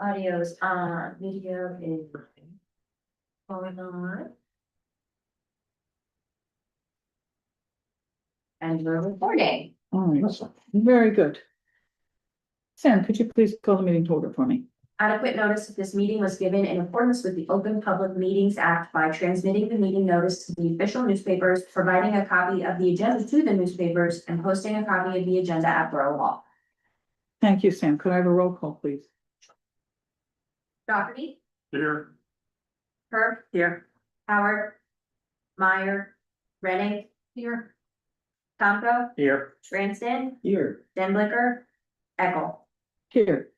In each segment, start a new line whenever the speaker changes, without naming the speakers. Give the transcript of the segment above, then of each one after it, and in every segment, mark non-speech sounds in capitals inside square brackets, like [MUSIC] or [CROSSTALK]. Audio is on, uh, video is. Going on. And we're recording.
All right, very good. Sam, could you please call the meeting to order for me?
Adequate notice of this meeting was given in accordance with the Open Public Meetings Act by transmitting the meeting notice to the official newspapers, providing a copy of the agenda to the newspapers, and posting a copy of the agenda at Borough Hall.
Thank you, Sam. Could I have a roll call, please?
Doherty,
Here.
Herb. Here. Howard. Meyer. Rennie. Here. Tomco.
Here.
Branson,
Here.
Denblicker, Eckel.
Here.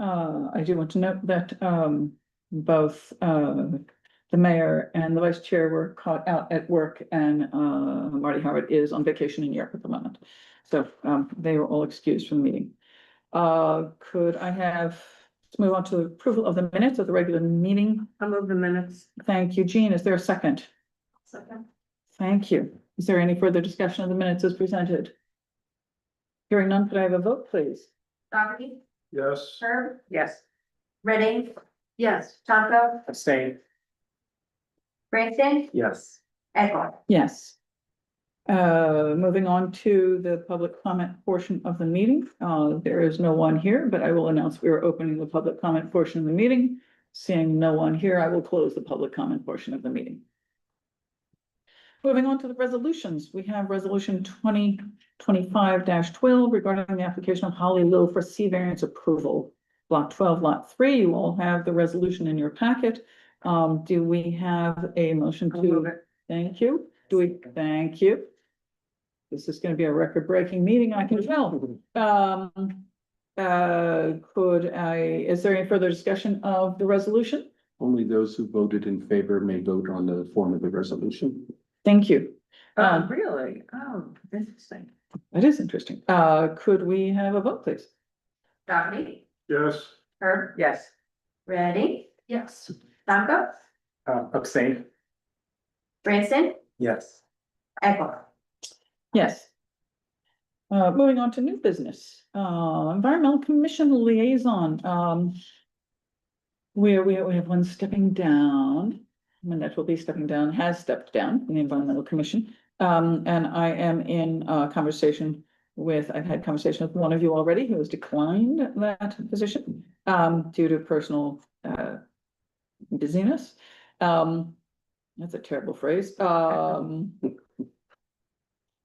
Uh, I do want to note that, um, both, uh, the mayor and the vice chair were caught out at work and, uh, Marty Howard is on vacation in Europe at the moment. So, um, they were all excused from the meeting. Uh, could I have, let's move on to approval of the minutes of the regular meeting.
I'll move the minutes.
Thank you, Jean. Is there a second? Thank you. Is there any further discussion of the minutes as presented? Hearing none, could I have a vote, please?
Dougherty,
Yes.
Herb,
Yes.
Redding,
Yes.
Tomco,
Abstain.
Branson,
Yes.
Eckel.
Yes. Uh, moving on to the public comment portion of the meeting. Uh, there is no one here, but I will announce we are opening the public comment portion of the meeting. Seeing no one here, I will close the public comment portion of the meeting. Moving on to the resolutions, we have resolution twenty twenty-five twelve regarding the application of Holly Lil for C variance approval. Block twelve, lot three, you all have the resolution in your packet. Um, do we have a motion
I'll move
to?
it.
Thank you. Do we, thank you. This is gonna be a record-breaking meeting, I can tell. Um, uh, could I, is there any further discussion of the resolution?
[LAUGHS] Only those who voted in favor may vote on the form of the resolution.
Thank you.
Oh,
Um,
really? Oh, interesting.
That is interesting. Uh, could we have a vote, please?
Dougherty,
Yes.
Herb,
Yes.
Redding. Yes. Tomco,
Uh, abstain.
Branson,
Yes.
Eckel.
Yes. Uh, moving on to new business, uh, environmental commission liaison, um. Where we, we have one stepping down, Manette will be stepping down, has stepped down in the environmental commission. Um, and I am in, uh, conversation with, I've had conversation with one of you already who has declined that position. Um, due to personal, uh, busyness, um, that's a terrible phrase, um.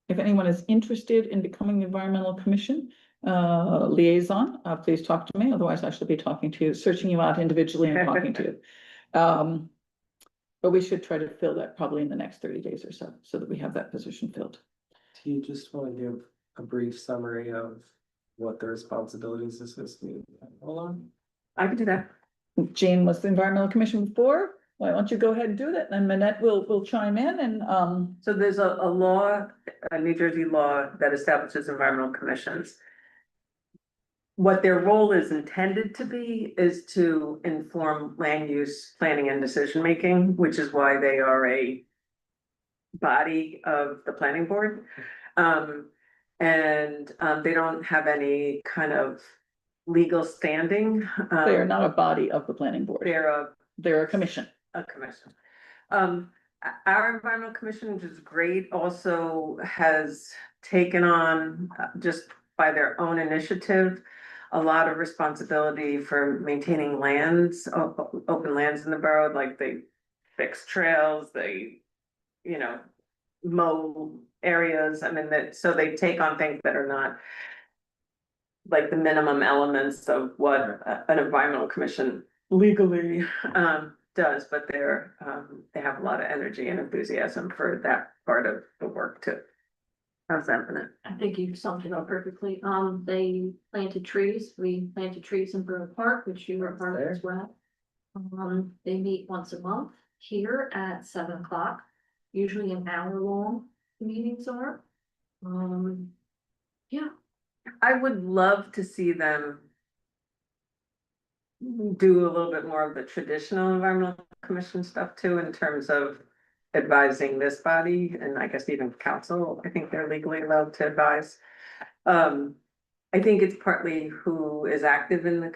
If anyone is interested in becoming the environmental commission uh liaison, uh please talk to me, otherwise I shall be talking to you, searching you out individually and talking to you. Um, but we should try to fill that probably in the next thirty days or so, so that we have that position filled.
Do you just want to give a brief summary of what the responsibilities of this meeting? Hold on.
I can do that.
Jane was the environmental commission before, why don't you go ahead and do that, and Manette will will chime in and um,
So there's a, a law, a New Jersey law that establishes environmental commissions. What their role is intended to be is to inform land use, planning and decision making, which is why they are a body of the planning board. Um, and, um, they don't have any kind of legal standing. Um,
they are not a body of the planning board,
They're a
they're a commission.
a commission. Um, o- our environmental commission, which is great, also has taken on, uh, just by their own initiative, a lot of responsibility for maintaining lands, o- o- open lands in the borough, like they fix trails, they, you know, mow areas, I mean, that, so they take on things that are not like the minimum elements of what a- an environmental commission legally um, does, but they're, um, they have a lot of energy and enthusiasm for that part of the work too. How's that for
I think you summed it up perfectly. Um, they planted trees. We planted trees in Borough Park, which you were part of as well. Um, they meet once a month here at seven o'clock. Usually an hour long meetings are. Um,
I would love to see them do a little bit more of the traditional environmental commission stuff too, in terms of advising this body and I guess even council, I think they're legally allowed to advise. Um, I think it's partly who is active in the